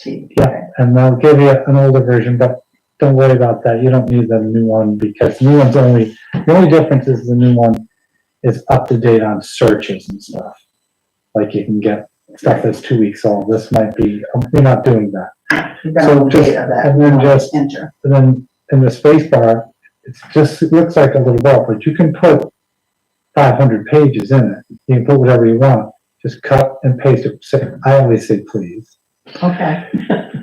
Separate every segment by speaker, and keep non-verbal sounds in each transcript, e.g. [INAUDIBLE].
Speaker 1: cheap.
Speaker 2: Yeah, and they'll give you an older version, but don't worry about that. You don't need the new one because new one's only, the only difference is the new one is up to date on searches and stuff. Like you can get stuff that's two weeks old. This might be, you're not doing that.
Speaker 1: You've got
Speaker 2: So
Speaker 1: all the
Speaker 2: just-
Speaker 1: data that.
Speaker 2: and then just-
Speaker 1: Enter.
Speaker 2: And then in the space bar, it's just, it looks like a little bar, but you can put five hundred pages in it. You can put whatever you want. Just cut and paste it. Say, I always say please
Speaker 1: Okay,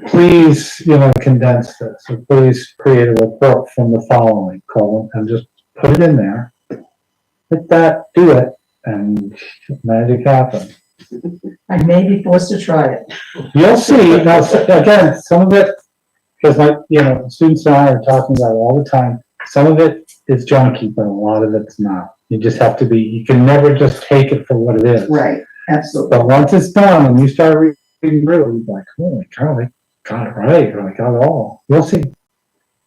Speaker 2: please, you know, condense this, or please create a report from the following column, and just put it in there. Hit that, do it, and magic happens.
Speaker 1: I may be forced to try it.
Speaker 2: You'll see, now, s- again, some of it, because like, you know, students and I are talking about it all the time, some of it is junky, but a lot of it's not. You just have to be, you can never just take it for what it is.
Speaker 1: Right, absolutely.
Speaker 2: But once it's done and you start reading through, you're like, holy cow, they got it right, or they got it all. You'll see.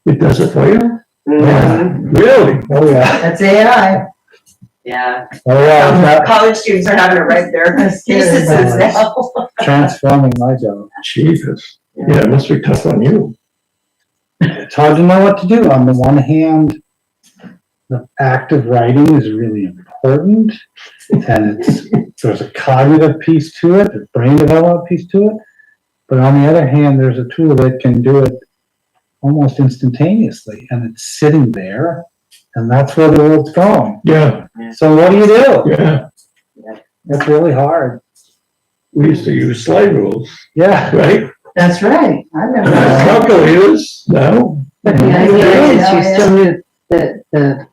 Speaker 3: It does it for you?
Speaker 1: Mm-hmm.
Speaker 2: Yeah.
Speaker 3: Really?
Speaker 2: Oh, yeah.
Speaker 1: That's AI.
Speaker 4: Yeah,
Speaker 2: Oh, yeah.
Speaker 4: Um,
Speaker 2: That-
Speaker 4: college students are having to write their theses now.
Speaker 2: transforming my job.
Speaker 3: Jesus. Yeah, it must be tough on you.
Speaker 2: It's hard to know what to do. On the one hand, the act of writing is really important. And it's, there's a cognitive piece to it, a brain development piece to it. But on the other hand, there's a tool that can do it almost instantaneously and it's sitting there. And that's where the world's going.
Speaker 3: Yeah,
Speaker 2: So what do you do?
Speaker 3: yeah.
Speaker 2: It's really hard.
Speaker 3: We used to use slide rules,
Speaker 2: Yeah.
Speaker 3: right?
Speaker 1: That's right. I remember.
Speaker 3: Calculators, no?
Speaker 5: But the
Speaker 1: Yeah,
Speaker 5: idea
Speaker 1: yeah,
Speaker 5: is
Speaker 1: yeah,
Speaker 5: you
Speaker 1: yeah.
Speaker 5: still knew the, the,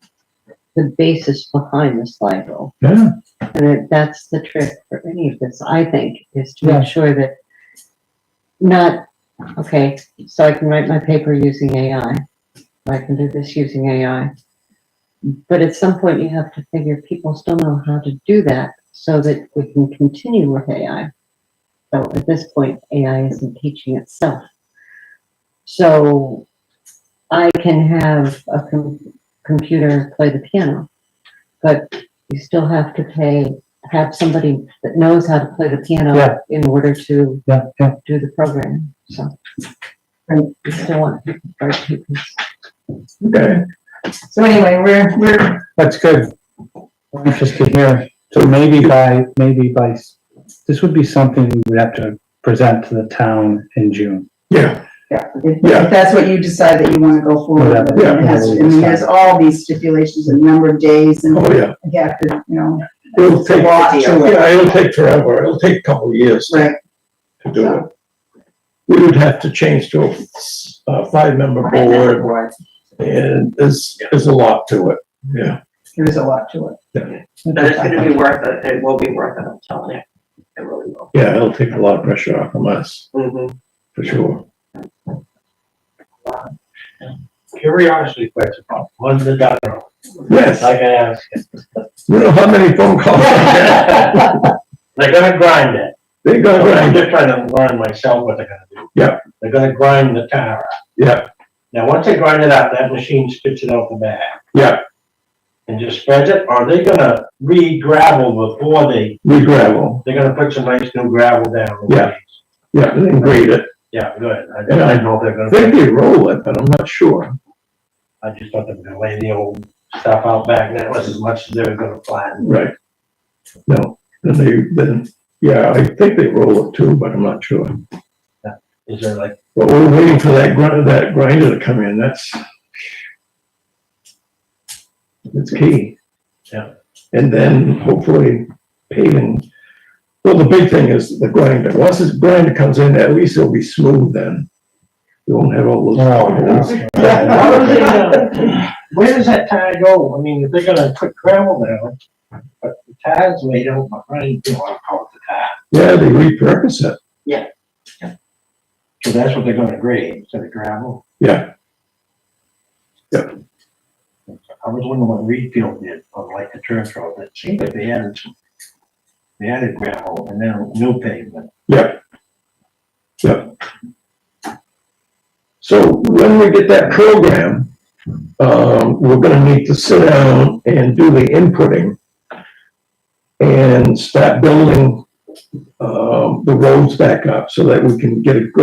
Speaker 5: the basis behind the slide rule.
Speaker 3: Yeah,
Speaker 5: And it- that's the trick for any of this, I think, is to
Speaker 2: Yeah.
Speaker 5: make sure that not, okay, so I can write my paper using AI. I can do this using AI. But at some point you have to figure people still know how to do that so that we can continue with AI. So at this point, AI isn't teaching itself. So I can have a com- computer play the piano, but you still have to pay, have somebody that knows how to play the
Speaker 2: Yeah.
Speaker 5: piano in order to
Speaker 2: Yeah, yeah.
Speaker 5: do the program, so.
Speaker 1: Right.
Speaker 5: You still want the right people.
Speaker 3: okay.
Speaker 1: So anyway, we're, we're,
Speaker 2: That's good. I'm Interested to hear. So maybe by, maybe by, this would be something we would have to present to the town in June.
Speaker 3: Yeah,
Speaker 1: yeah, if,
Speaker 3: Yeah.
Speaker 1: if that's what you decide that you wanna go forward with,
Speaker 3: Yeah.
Speaker 1: it has, I mean, there's all these stipulations and number of days and
Speaker 3: oh, yeah.
Speaker 1: you have to, you know,
Speaker 3: It'll
Speaker 1: it's a
Speaker 3: take,
Speaker 1: lot to it,
Speaker 3: yeah, it'll take forever. It'll take a couple of years to
Speaker 1: right?
Speaker 3: to do it. We would have to change to a, a five-member board and there's, there's a lot to it. Yeah,
Speaker 1: There is a lot to it.
Speaker 4: But it's gonna be worth it, it will be worth it, I'm telling you, it really will.
Speaker 3: yeah, it'll take a lot of pressure off of us,
Speaker 4: Mm-hmm.
Speaker 3: for sure.
Speaker 6: curiosity question, what's the dollar?
Speaker 3: Yes,
Speaker 6: Like I asked,
Speaker 3: [LAUGHS] you know how many phone calls I
Speaker 1: [LAUGHS]
Speaker 3: get?
Speaker 6: they're gonna grind it.
Speaker 3: They go
Speaker 6: I'm
Speaker 3: around,
Speaker 6: just trying to learn myself what they're gonna do.
Speaker 3: Yeah.
Speaker 6: They're gonna grind the tire. out.
Speaker 3: yeah,
Speaker 6: Now, once they grind it out, that machine spits it out the back
Speaker 3: yeah,
Speaker 6: and just spreads it, or they gonna re-gravel before they,
Speaker 3: we gravel,
Speaker 6: they're gonna put some nice new gravel down. the
Speaker 3: Yeah.
Speaker 6: ways.
Speaker 3: yeah, they grade it.
Speaker 6: Yeah, good. I just, I know they're
Speaker 3: I
Speaker 6: gonna,
Speaker 3: think they roll it, but I'm not sure.
Speaker 6: I just thought they were gonna lay the old stuff out back, that was as much as they were gonna flatten.
Speaker 3: Right. No, then they, then, yeah, I think they roll it too, but I'm not sure.
Speaker 6: Is there like,
Speaker 3: But we're waiting for that grinder, that grinder to come in, that's. It's key.
Speaker 6: Yeah.
Speaker 3: And then hopefully paving, well, the big thing is the grinder, once this grinder comes in, at least it'll be smooth then. We won't have all
Speaker 2: Oh,
Speaker 3: those. potholes.
Speaker 6: Why would they, uh, Where does that tire go? I mean, if they're gonna put gravel down, but the tire's laid out behind, you know, I call it the tire.
Speaker 3: Yeah, they repurpose it,
Speaker 6: So that's what they're gonna grade instead of gravel.
Speaker 3: yeah,
Speaker 6: I was wondering what Reedfield did on like the church road. It seemed like they added some, they added gravel and now no pavement.
Speaker 3: yeah. Yeah. So when we get that program, um, we're gonna need to sit down and do the inputting and start building, um, the roads back up so that we can get a good